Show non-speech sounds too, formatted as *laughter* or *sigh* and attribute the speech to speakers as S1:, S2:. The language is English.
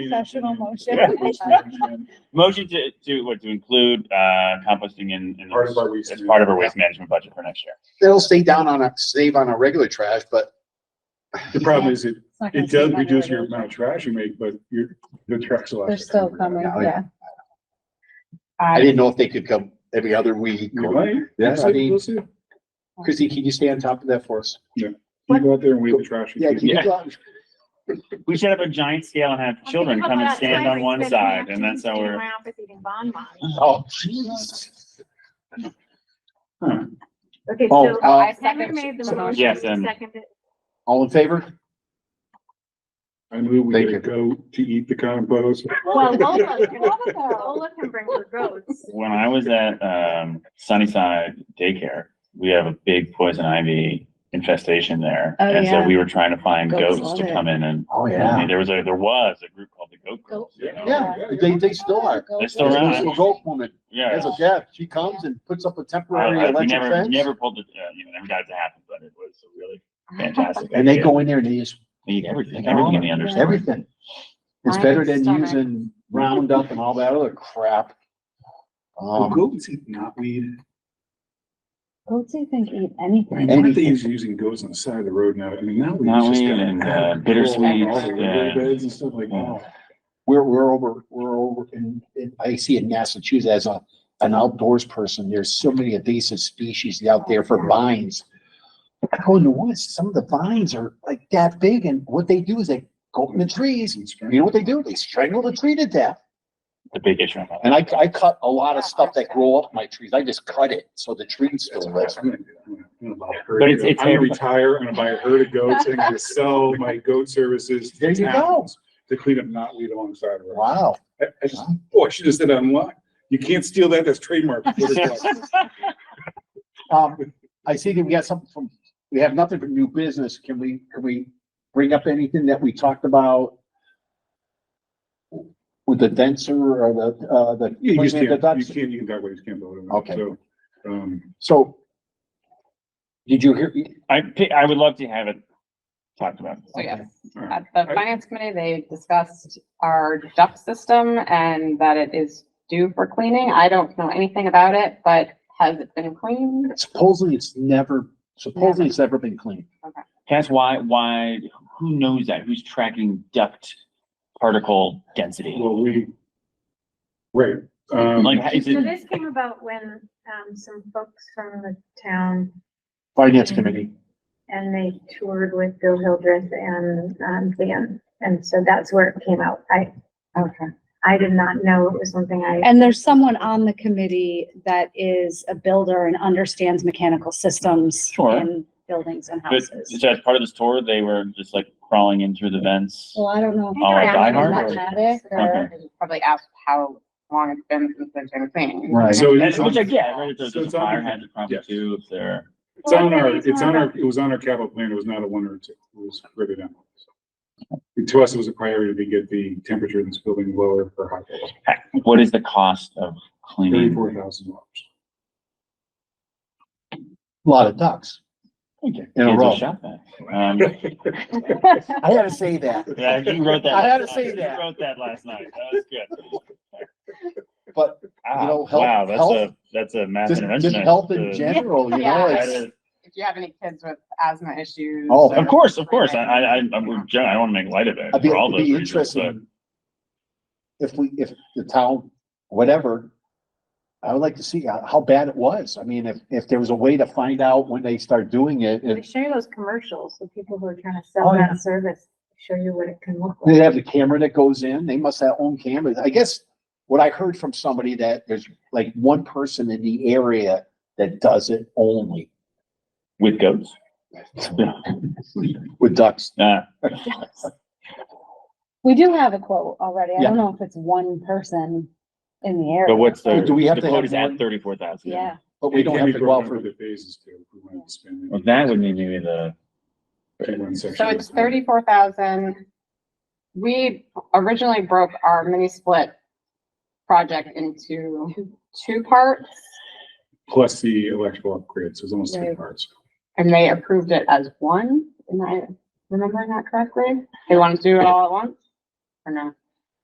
S1: Professional motion.
S2: Motion to, to, what, to include, uh, composting in, in.
S3: Part of our waste
S2: As part of our waste management budget for next year.
S4: It'll stay down on a, save on our regular trash, but
S3: The problem is it,
S1: It's not gonna
S3: it does
S1: save money
S3: reduce
S1: right
S3: your
S1: now.
S3: amount of trash you make, but your, the trash. will
S1: They're
S3: actually
S1: still
S3: come
S1: coming,
S4: Yeah, I-
S1: yeah.
S4: I didn't know if they could come every other week.
S3: You might.
S4: Yeah, I mean-
S3: We'll see.
S4: Chrissy, can you stay on top of that for us?
S3: You go out there and weigh the trash.
S4: Yeah, can you
S2: Yeah.
S4: go out-
S2: We set up a giant scale and have children come and stand on one side and that's how we're.
S4: Oh, jeez.
S5: Okay,
S4: Oh,
S5: so
S4: uh,
S5: I second made the motion.
S2: Yes, and-
S5: Seconded.
S4: All in favor?
S3: I move we
S4: Thank
S3: let
S4: you.
S3: it go to eat the compost.
S5: Well, *laughs* Lola, can- Lola can bring her goats.
S2: When I was at, um, Sunnyside daycare, we have a big poison ivy infestation there.
S1: Oh,
S2: And
S1: yeah.
S2: so we were trying to find
S1: Goats
S2: goats
S1: love
S2: to
S1: it.
S2: come in and,
S4: Oh,
S2: I mean, there was a, there was a group called the Goat Girls. you know?
S4: Yeah, they, they still are.
S1: Go
S2: They're still
S1: for it.
S2: around.
S4: Little goat woman,
S2: Yeah.
S4: as a deaf, she comes and puts up a temporary
S2: I- I- We
S4: electric
S2: never,
S4: fence.
S2: never pulled it, uh, you know, never got it to happen, but it was
S1: *laughs*
S2: a really fantastic.
S4: And they
S2: idea.
S4: go in there and they just,
S2: They eat everything,
S4: They go
S2: everything in
S4: on
S2: the
S4: it.
S2: underside.
S4: everything. It's
S5: I
S4: better
S5: have
S4: than
S5: stomach.
S4: using Roundup and all that other crap. Um,
S3: Goats eat knotweed.
S1: Goats, I think, eat anything.
S3: And aren't they using goats on the side of the road now? I mean, now.
S2: Knotweed and, uh, bittersweet uh,
S3: All the
S2: and-
S3: beds and stuff like that.
S4: we're, we're over, we're over, and, and I see in Massachusetts as a, an outdoors person, there's so many invasive species out there for vines. I go in the woods, some of the vines are like that big, and what they do is they go up in the trees, you know what they do? They strangle the tree to death.
S2: The big issue. on that.
S4: And I, I cut a lot of stuff that grow up my trees, I just cut it, so the trees
S3: That's
S4: still
S3: what
S4: live.
S3: I'm gonna do. I'm gonna buy a
S2: But
S3: herd
S2: it's-
S3: of- I'm
S2: it's
S3: gonna
S2: every-
S3: retire, I'm gonna buy a herd of goats and I'm gonna sell my goat services. to
S4: There you go,
S3: towns To clean up knotweed alongside of her.
S4: wow.
S3: I, I just, boy, she just did that on what? You can't steal that, that's trademark.
S4: Um, I see that we got something from, we have nothing from new business. Can we, can we bring up anything that we talked about? With the denser or the, uh, the.
S3: You just
S4: cleaning
S3: can't,
S4: the
S3: you
S4: ducts?
S3: can't, you can talk about it, you can't vote on it.
S4: Okay.
S3: So, um,
S4: So. Did you hear,
S2: I, pi- I would love to have it talked about.
S6: So
S1: Oh,
S6: yes,
S3: all right.
S6: at the finance committee, they discussed our duct system and that it is due for cleaning. I don't know anything about it, but has it been cleaned?
S4: supposedly it's never, supposedly it's never been cleaned.
S2: Can I ask why, why, who knows that? Who's tracking duct particle density?
S3: well, we, right, um,
S2: Like, is
S5: So
S2: it,
S5: this came about when, um, some folks from the town
S4: Finance committee.
S5: and they toured with Bill Hildreth and, um, Dan. And so that's where it came out. I,
S6: Okay.
S5: I did not know it was something I.
S1: And there's someone on the committee that is a builder and understands mechanical systems
S2: Sure.
S1: in buildings and
S2: but,
S1: houses.
S2: so as part of this tour, they were just like crawling in through the vents?
S1: Well, I don't know. if
S2: Oh, like
S1: that's
S2: Die Hard?
S1: automatic or-
S2: Okay.
S6: Probably asked how long it's been since they've been cleaning.
S4: Right.
S3: so.
S2: And- Which I get, right? If there's
S3: So
S2: there's a
S3: it's on-
S2: fire hazard probably
S3: Yes.
S2: too, if they're,
S3: It's on our, it's on our, it was on our capital plan. It was not a one or a two. It was further down. And To us, it was a priority to get the temperature in this building lower for hot water.
S2: what is the cost of
S4: Mm-hmm.
S2: cleaning?
S3: Thirty-four thousand dollars.
S4: A Lot of ducks.
S2: In
S4: a row.
S2: Um,
S4: I had to say that,
S2: yeah, you wrote that.
S4: I had to
S2: last
S4: say
S2: night.
S4: that.
S2: You wrote that last night. That was good.
S4: but
S2: Ah,
S4: You know, health-
S2: Wow, that's a,
S4: health-
S2: that's a math
S4: just,
S2: intervention.
S4: just health in
S2: Uh,
S4: general, you know,
S6: Yeah.
S2: that
S4: it's.
S2: is-
S6: If you have any kids with asthma issues.
S4: Oh,
S2: Of course, of course. I, I, I, I'm with Joe. I don't want to make light of it
S4: I'd be,
S2: for all
S4: it'd
S2: those
S4: be
S2: reasons, but
S4: interesting. If we, if the town, whatever, I would like to see how, how bad it was. I mean, if, if there was a way to find out when they start doing it,
S5: They
S4: if
S5: show you those commercials with people who are trying to
S4: Oh,
S5: sell
S4: yeah.
S5: that service, show you what it can look
S4: they
S5: like.
S4: have the camera that goes in, they must have own cameras. I guess what I heard from somebody that there's like one person in the area that does it only *laughs*
S2: with goats.
S4: with ducks.
S2: Uh,
S1: We do have a quote already. I
S4: Yeah.
S1: don't know if it's one person in the area.
S2: but what's the,
S4: Do we have
S2: the
S4: to
S2: quote
S4: have
S2: is
S4: more?
S2: at thirty-four thousand.
S1: Yeah,
S4: But we don't have to go out for,
S3: The phases too. if we wanted to spend it.
S2: Well, that would mean maybe the,
S3: Keep one section
S6: So
S3: at a
S6: it's
S3: time.
S6: thirty-four thousand. We originally broke our mini split project into two parts
S3: Plus the electrical upgrades. So it's almost three
S1: Right.
S3: parts.
S6: and they approved it as one. Am I remembering that correctly? They wanted to do it all at once? Or no?